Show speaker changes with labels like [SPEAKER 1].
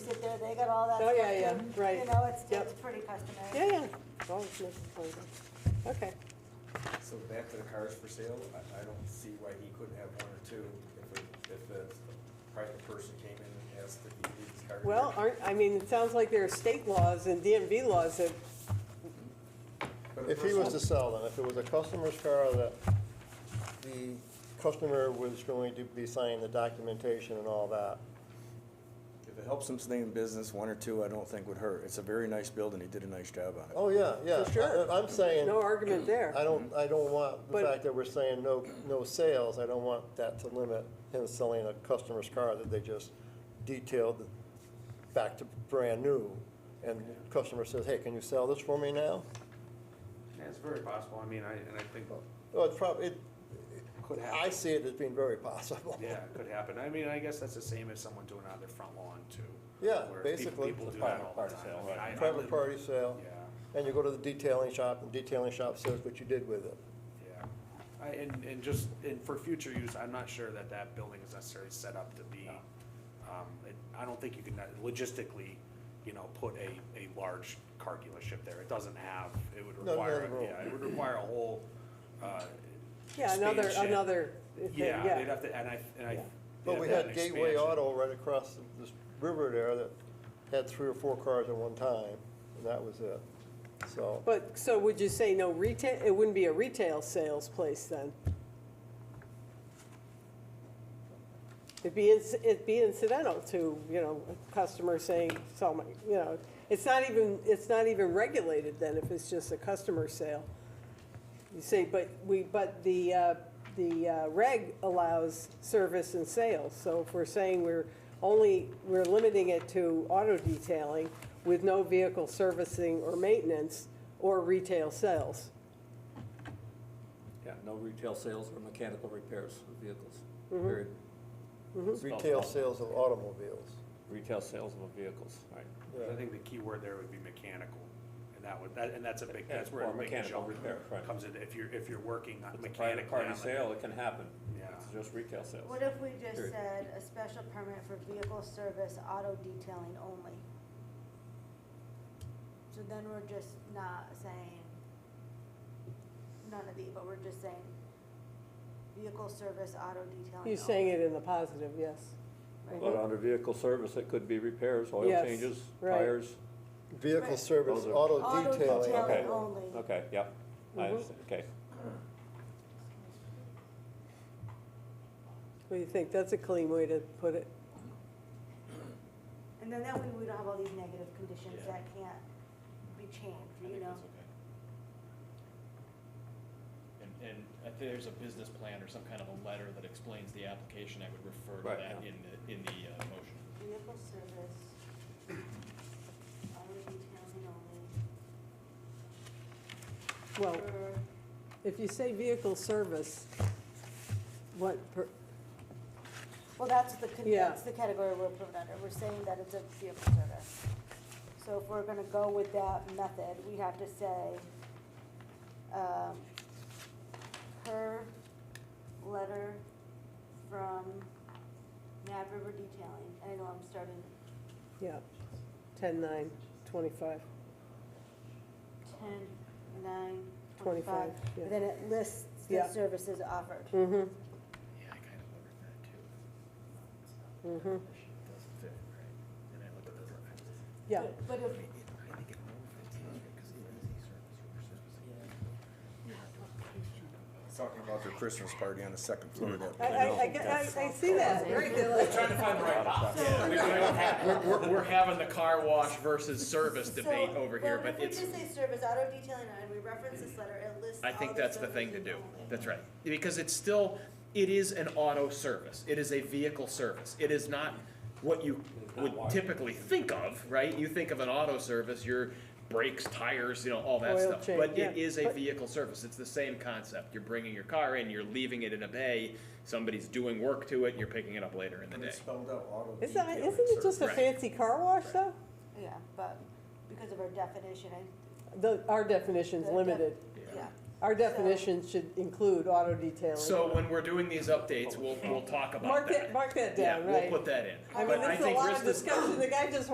[SPEAKER 1] picture, they got all that
[SPEAKER 2] Oh,
[SPEAKER 1] stuff.
[SPEAKER 2] yeah, yeah,
[SPEAKER 1] in.
[SPEAKER 2] right.
[SPEAKER 1] You know, it's,
[SPEAKER 2] Yep.
[SPEAKER 1] it's pretty customary.
[SPEAKER 2] Yeah, yeah, it's always misleading. Okay,
[SPEAKER 3] So back to the cars for sale, I, I don't see why he couldn't have one or two if, a- if a private person came in and asked if he needed his car.
[SPEAKER 2] well, aren't, I mean, it sounds like there are state laws and DMV laws that, uh,
[SPEAKER 3] But a
[SPEAKER 4] If he was to
[SPEAKER 3] person-
[SPEAKER 4] sell them, if it was a customer's car that the customer was going to be signing the documentation and all that,
[SPEAKER 3] If it helps him stay in business, one or two, I don't think would hurt. It's a very nice building, he did a nice job on it.
[SPEAKER 4] oh, yeah, yeah. Uh,
[SPEAKER 2] For sure.
[SPEAKER 4] I- I'm saying,
[SPEAKER 2] no argument there.
[SPEAKER 4] I don't, I don't want the
[SPEAKER 2] But-
[SPEAKER 4] fact that we're saying no, no sales, I don't want that to limit him selling a customer's car that they just detailed back to brand new. And customer says, hey, can you sell this for me now?
[SPEAKER 5] Yeah, it's very possible, I mean, I, and I think,
[SPEAKER 4] Well, it's probably, it,
[SPEAKER 5] could
[SPEAKER 4] I
[SPEAKER 5] happen,
[SPEAKER 4] see it as being very possible.
[SPEAKER 5] yeah, it could happen, I mean, I guess that's the same as someone doing it on their front lawn too.
[SPEAKER 4] Yeah,
[SPEAKER 5] where peop-
[SPEAKER 4] basically.
[SPEAKER 5] People
[SPEAKER 4] It's
[SPEAKER 5] do
[SPEAKER 4] a
[SPEAKER 5] that
[SPEAKER 3] private
[SPEAKER 5] all
[SPEAKER 3] party
[SPEAKER 5] the time.
[SPEAKER 3] sale,
[SPEAKER 5] I mean,
[SPEAKER 3] right.
[SPEAKER 5] I- I
[SPEAKER 4] Private
[SPEAKER 5] live-
[SPEAKER 4] party
[SPEAKER 5] Yeah,
[SPEAKER 4] sale, and you go to the detailing shop, and detailing shop says what you did with it.
[SPEAKER 5] yeah, I, and, and just, and for future use, I'm not sure that that building is necessarily set up to be, um, it- I don't think you can uh, logistically, you know, put a, a large car dealership there, it doesn't have, it would
[SPEAKER 4] No,
[SPEAKER 5] require,
[SPEAKER 4] no, no.
[SPEAKER 5] yeah, it would require a whole, uh.
[SPEAKER 2] Yeah, another,
[SPEAKER 5] expansion.
[SPEAKER 2] another, thing,
[SPEAKER 5] Yeah, they'd
[SPEAKER 2] yeah.
[SPEAKER 5] have to, and I, and I.
[SPEAKER 2] Yeah.
[SPEAKER 4] But
[SPEAKER 5] they'd
[SPEAKER 4] we
[SPEAKER 5] have
[SPEAKER 4] had
[SPEAKER 5] to have an
[SPEAKER 4] Gateway
[SPEAKER 5] expansion.
[SPEAKER 4] Auto right across this river there that had three or four cars at one time, and that was it. So,
[SPEAKER 2] But, so would you say no retail, it wouldn't be a retail sales place then? It'd be, inci- it'd be incidental to, you know, a customer saying, so, my- you know, it's not even, it's not even regulated then if it's just a customer sale. You see, but we, but the, uh, the uh, reg allows service and sales, so if we're saying we're only, we're limiting it to auto detailing with no vehicle servicing or maintenance or retail sales.
[SPEAKER 6] Yeah, no retail sales or mechanical repairs of vehicles, period.
[SPEAKER 4] Mm-hmm. retail sales of automobiles.
[SPEAKER 6] Retail sales of vehicles, right.
[SPEAKER 5] I think the key word there would be mechanical, and that would, that, and that's a big,
[SPEAKER 6] Yeah,
[SPEAKER 5] that's where a
[SPEAKER 6] or
[SPEAKER 5] big
[SPEAKER 6] mechanical
[SPEAKER 5] jump
[SPEAKER 6] repair, right.
[SPEAKER 5] comes in, if you're, if you're working on
[SPEAKER 6] It's a
[SPEAKER 5] mechanically.
[SPEAKER 6] private party
[SPEAKER 5] on the-
[SPEAKER 6] sale, it can happen.
[SPEAKER 5] Yeah.
[SPEAKER 6] It's just retail sales.
[SPEAKER 1] What if we just
[SPEAKER 6] Period.
[SPEAKER 1] said a special permit for vehicle service, auto detailing only? So then we're just not saying none of the, but we're just saying vehicle service, auto detailing.
[SPEAKER 2] You're saying it in the positive, yes.
[SPEAKER 6] But under vehicle service, it could be repairs, oil
[SPEAKER 2] Yes,
[SPEAKER 6] changes,
[SPEAKER 2] right.
[SPEAKER 6] tires.
[SPEAKER 4] Vehicle
[SPEAKER 1] Right.
[SPEAKER 4] service,
[SPEAKER 6] Those are-
[SPEAKER 4] auto
[SPEAKER 1] Auto
[SPEAKER 4] detailing.
[SPEAKER 1] detailing
[SPEAKER 6] Okay.
[SPEAKER 1] only.
[SPEAKER 6] Okay, yep, I understand, okay.
[SPEAKER 2] What do you think? That's a clean way to put it.
[SPEAKER 1] And then that way we don't have all these negative conditions that can't be changed,
[SPEAKER 7] I
[SPEAKER 1] you
[SPEAKER 7] think
[SPEAKER 1] know?
[SPEAKER 7] that's okay. And, and if there's a business plan or some kind of a letter that explains the application, I would refer to
[SPEAKER 6] Right,
[SPEAKER 7] that
[SPEAKER 6] yeah.
[SPEAKER 7] in the, in the uh, motion.
[SPEAKER 1] Vehicle service, auto detailing only.
[SPEAKER 2] Well,
[SPEAKER 1] for-
[SPEAKER 2] if you say vehicle service, what, per-
[SPEAKER 1] Well, that's the, con-
[SPEAKER 2] Yeah.
[SPEAKER 1] that's the category we're putting under, we're saying that it's a vehicle service. So if we're gonna go with that method, we have to say, um, per letter from Mad River Detailing, I know I'm starting
[SPEAKER 2] yeah, ten, nine, twenty-five.
[SPEAKER 1] ten, nine,
[SPEAKER 2] 25,
[SPEAKER 1] twenty-five,
[SPEAKER 2] yeah.
[SPEAKER 1] but then it lists the
[SPEAKER 2] Yeah.
[SPEAKER 1] services offered.
[SPEAKER 2] Mm-hmm,
[SPEAKER 7] Yeah, I kind of wondered that too.
[SPEAKER 1] Hmm.
[SPEAKER 2] mm-hmm,
[SPEAKER 7] Doesn't fit, right? And I looked at the.
[SPEAKER 2] yeah.
[SPEAKER 1] But- But if,
[SPEAKER 7] I think it only fits because it is a service,
[SPEAKER 3] Talking about their Christmas party on the second floor of that.
[SPEAKER 2] I, I, I get- I, I see that.
[SPEAKER 7] We're, we're- we're having the car wash versus service
[SPEAKER 1] So,
[SPEAKER 7] debate over here,
[SPEAKER 1] well,
[SPEAKER 7] but it's,
[SPEAKER 1] if we just say service auto detailing and we reference this letter, it lists
[SPEAKER 7] I
[SPEAKER 1] all
[SPEAKER 7] think that's the
[SPEAKER 1] services
[SPEAKER 7] thing to do.
[SPEAKER 1] only.
[SPEAKER 7] That's right. Because it's still, it is an auto service. It is a vehicle service. It is not what you would typically think of, right? You think of an auto service, your brakes, tires, you know, all that
[SPEAKER 2] Oil
[SPEAKER 7] stuff.
[SPEAKER 2] change,
[SPEAKER 7] But it
[SPEAKER 2] yeah.
[SPEAKER 7] is a
[SPEAKER 2] But-
[SPEAKER 7] vehicle service. It's the same concept. You're bringing your car in, you're leaving it in a bay, somebody's doing work to it, you're picking it up later in the
[SPEAKER 3] And
[SPEAKER 7] day.
[SPEAKER 3] it's spelled out auto
[SPEAKER 2] Isn't, that-
[SPEAKER 3] detailing
[SPEAKER 2] isn't it
[SPEAKER 3] service.
[SPEAKER 2] just a
[SPEAKER 7] Right.
[SPEAKER 2] fancy car wash though?
[SPEAKER 1] Yeah, but because of our definition, I.
[SPEAKER 2] The, our definition's
[SPEAKER 1] the def-
[SPEAKER 2] limited.
[SPEAKER 1] Yeah.
[SPEAKER 2] Our
[SPEAKER 1] So-
[SPEAKER 2] definition should include auto detailing.
[SPEAKER 7] So when we're doing these updates, we'll, we'll talk about
[SPEAKER 2] Mark
[SPEAKER 7] that.
[SPEAKER 2] that, mark that
[SPEAKER 7] Yeah,
[SPEAKER 2] down, right?
[SPEAKER 7] we'll put that in.
[SPEAKER 2] I mean,
[SPEAKER 7] But
[SPEAKER 2] this is a
[SPEAKER 7] think
[SPEAKER 2] lot
[SPEAKER 7] risk
[SPEAKER 2] of
[SPEAKER 7] is-
[SPEAKER 2] discussion, the guy just